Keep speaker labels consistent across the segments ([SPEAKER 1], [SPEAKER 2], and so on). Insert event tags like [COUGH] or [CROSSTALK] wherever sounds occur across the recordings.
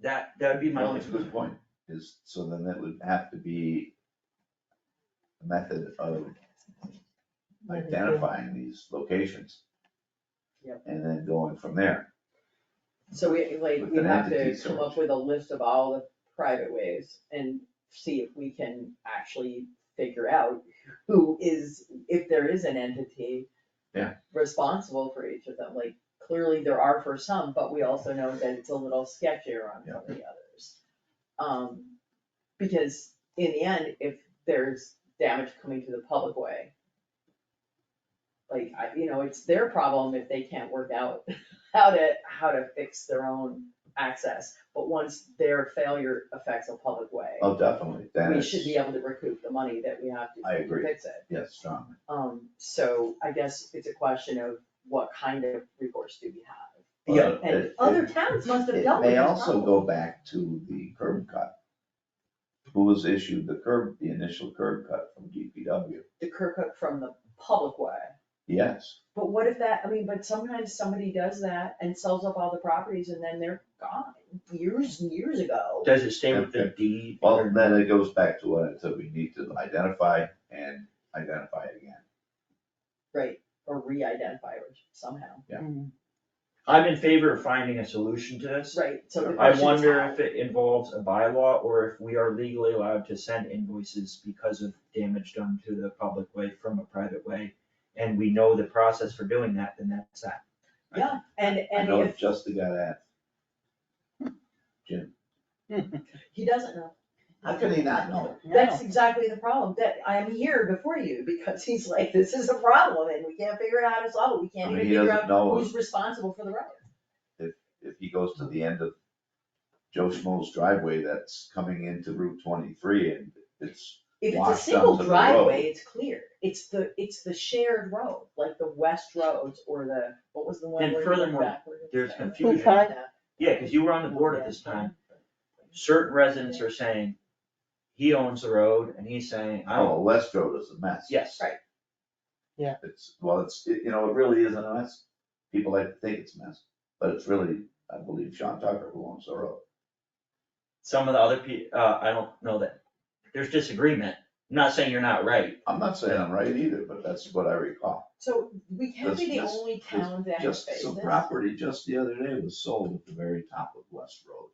[SPEAKER 1] That, that would be my
[SPEAKER 2] Well,
[SPEAKER 1] only.
[SPEAKER 2] That's a good point,
[SPEAKER 3] is, so then that would have to be a method of identifying these locations.
[SPEAKER 4] Yep.
[SPEAKER 3] And then going from there.
[SPEAKER 4] So we, like,
[SPEAKER 3] With
[SPEAKER 4] we
[SPEAKER 3] an
[SPEAKER 4] have to
[SPEAKER 3] entity
[SPEAKER 4] come
[SPEAKER 3] search.
[SPEAKER 4] up with a list of all the private ways and see if we can actually figure out who is, if there is an entity.
[SPEAKER 3] Yeah.
[SPEAKER 4] Responsible for each of them, like, clearly there are for some, but we also know that it's a little sketchier on some of the others. Um, because in the end, if there's damage coming to the public way. Like, I, you know, it's their problem if they can't work out [LAUGHS] how to, how to fix their own access. But once their failure affects a public way,
[SPEAKER 3] Oh, definitely, that
[SPEAKER 4] we
[SPEAKER 3] is,
[SPEAKER 4] should be able to recoup the money that we have
[SPEAKER 3] I
[SPEAKER 4] to
[SPEAKER 3] agree.
[SPEAKER 4] fix it.
[SPEAKER 3] yes, strongly.
[SPEAKER 4] Um, so I guess it's a question of what kind of recourse do we have?
[SPEAKER 1] Yeah,
[SPEAKER 3] But
[SPEAKER 4] And
[SPEAKER 3] it-
[SPEAKER 4] other
[SPEAKER 3] it-
[SPEAKER 4] towns must have
[SPEAKER 3] It
[SPEAKER 4] dealt with
[SPEAKER 3] may
[SPEAKER 4] this
[SPEAKER 3] also
[SPEAKER 4] problem.
[SPEAKER 3] go back to the curb cut. Who was issued the curb, the initial curb cut from DPW?
[SPEAKER 4] The curb cut from the public way.
[SPEAKER 3] Yes,
[SPEAKER 4] But what if that, I mean, but sometimes somebody does that and sells up all the properties and then they're gone years and years ago.
[SPEAKER 1] Does it stay with the
[SPEAKER 3] Okay.
[SPEAKER 1] deed?
[SPEAKER 3] well, then it goes back to what I said, we need to identify and identify it again.
[SPEAKER 4] Right, or re-identify it somehow.
[SPEAKER 1] I'm in favor of finding a solution to this.
[SPEAKER 4] Right, so the
[SPEAKER 1] I
[SPEAKER 4] question is
[SPEAKER 1] wonder
[SPEAKER 4] how.
[SPEAKER 1] if it involves a bylaw or if we are legally allowed to send invoices because of damage done to the public way from a private way. And we know the process for doing that, then that's that.
[SPEAKER 4] Yeah, and,
[SPEAKER 3] I
[SPEAKER 4] and
[SPEAKER 3] know
[SPEAKER 4] if,
[SPEAKER 3] just the guy that. Jim,
[SPEAKER 4] he doesn't know,
[SPEAKER 3] how can he not know?
[SPEAKER 4] that's exactly the problem, that I'm here before you, because he's like, this is a problem, and we can't figure out how to solve it, we
[SPEAKER 3] I
[SPEAKER 4] can't
[SPEAKER 3] mean,
[SPEAKER 4] even
[SPEAKER 3] he
[SPEAKER 4] figure
[SPEAKER 3] doesn't
[SPEAKER 4] out
[SPEAKER 3] know
[SPEAKER 4] who's responsible for the road.
[SPEAKER 3] if he goes to the end of Joe Schmo's driveway that's coming into Route twenty-three and it's,
[SPEAKER 4] If it's a
[SPEAKER 3] Washed
[SPEAKER 4] single
[SPEAKER 3] onto the road.
[SPEAKER 4] driveway, it's clear, it's the, it's the shared road, like the west roads or the, what was the one
[SPEAKER 1] And
[SPEAKER 4] where you went
[SPEAKER 1] furthermore,
[SPEAKER 4] backward and
[SPEAKER 1] there's
[SPEAKER 4] forward?
[SPEAKER 1] confusion.
[SPEAKER 5] Okay.
[SPEAKER 1] Yeah, cause you were on the board at this time. Certain residents are saying, he owns the road and he's saying, I
[SPEAKER 3] oh,
[SPEAKER 1] don't,
[SPEAKER 3] West Road is a mess.
[SPEAKER 1] yes.
[SPEAKER 4] Right.
[SPEAKER 3] It's, well, it's, it- you know, it really isn't a mess. People like to think it's a mess, but it's really, I believe Sean Tucker who owns the road.
[SPEAKER 1] Some of the other pe- uh, I don't know that, there's disagreement. I'm not saying you're not right.
[SPEAKER 3] I'm not saying I'm right either, but that's what I recall.
[SPEAKER 4] So we can't be
[SPEAKER 3] This-
[SPEAKER 4] the
[SPEAKER 3] this-
[SPEAKER 4] only
[SPEAKER 3] this
[SPEAKER 4] town that has
[SPEAKER 3] Just
[SPEAKER 4] faced
[SPEAKER 3] some
[SPEAKER 4] this.
[SPEAKER 3] property just the other day was sold at the very top of West
[SPEAKER 4] [LAUGHS]
[SPEAKER 3] Road.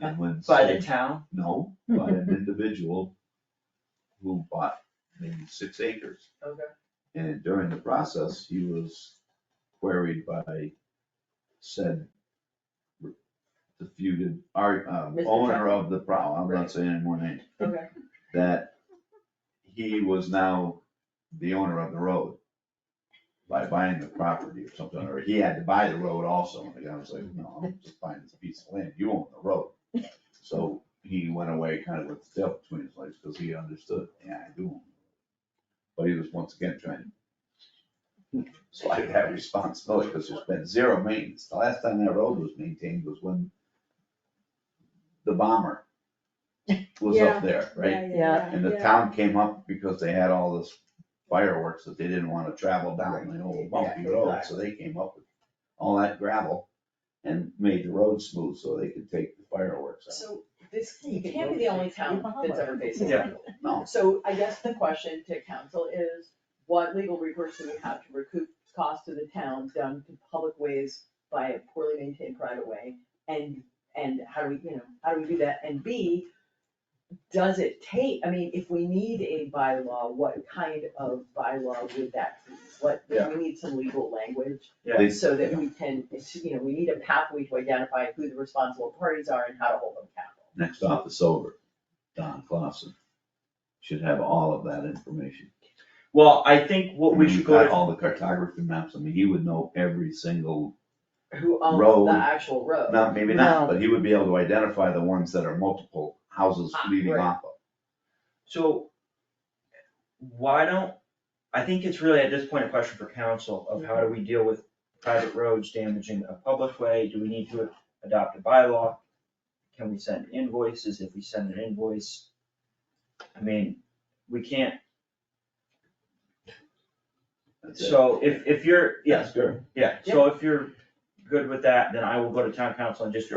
[SPEAKER 3] And when
[SPEAKER 1] By
[SPEAKER 3] sold-
[SPEAKER 1] the town,
[SPEAKER 3] No, by an individual who bought maybe six acres.
[SPEAKER 4] Okay.
[SPEAKER 3] And during the process, he was queried by said defeated, our, um,
[SPEAKER 4] Mr.
[SPEAKER 3] owner
[SPEAKER 4] Tucker.
[SPEAKER 3] of the problem, I'm
[SPEAKER 4] Right.
[SPEAKER 3] not saying any more names,
[SPEAKER 4] Okay,
[SPEAKER 3] that he was now the owner of the road by buying the property or something, or he had to buy the road also, and the guy was like, no, I'm just buying this piece of land, you own the road. So he went away kind of with the tail between his legs, because he understood, yeah, I do. own it." But he was once again trying to slide that responsibility, because there's been zero maintenance, the last time that road was maintained was when the bomber was
[SPEAKER 5] Yeah.
[SPEAKER 3] up there, right?
[SPEAKER 5] Yeah.
[SPEAKER 3] And the town came up because they had all this fireworks that they didn't wanna travel down the old bumpy
[SPEAKER 4] Yeah,
[SPEAKER 3] road, so they came up with all that gravel and made the road smooth so they could take the fireworks out.
[SPEAKER 4] so this, you can't be the only town that's ever faced this.
[SPEAKER 1] Yeah.
[SPEAKER 3] No,
[SPEAKER 4] So I guess the question to council is, what legal recourse do we have to recoup costs to the town done to public ways by a poorly maintained private way? And, and how do we, you know, how do we do that? And B, does it take, I mean, if we need a bylaw, what kind of bylaw would that be? What,
[SPEAKER 3] Yeah.
[SPEAKER 4] we need some legal language
[SPEAKER 3] they,
[SPEAKER 4] so that we can, it's, you know, we need a pathway to identify who the responsible parties are and how to hold them accountable.
[SPEAKER 3] next office over, Don Clausen, should have all of that information.
[SPEAKER 1] well, I think what we
[SPEAKER 3] He's
[SPEAKER 1] should go
[SPEAKER 3] got
[SPEAKER 1] to,
[SPEAKER 3] All the cartography maps, I mean, he would know every single,
[SPEAKER 4] Who owns
[SPEAKER 3] Road.
[SPEAKER 4] the actual road?
[SPEAKER 3] not, maybe not, but he would be able to identify the ones that are multiple houses
[SPEAKER 4] Ah,
[SPEAKER 3] leading
[SPEAKER 4] right.
[SPEAKER 3] off of.
[SPEAKER 1] so why don't, I think it's really at this point a question for council of how do
[SPEAKER 3] Mm-hmm.
[SPEAKER 1] we deal with private roads damaging a public way? Do we need to adopt a bylaw? Can we send invoices? If we send an invoice, I mean, we can't,
[SPEAKER 3] That's it.
[SPEAKER 1] so if, if you're, yes,
[SPEAKER 3] That's good.
[SPEAKER 1] yeah, so if you're good with that, then I will go to town council and just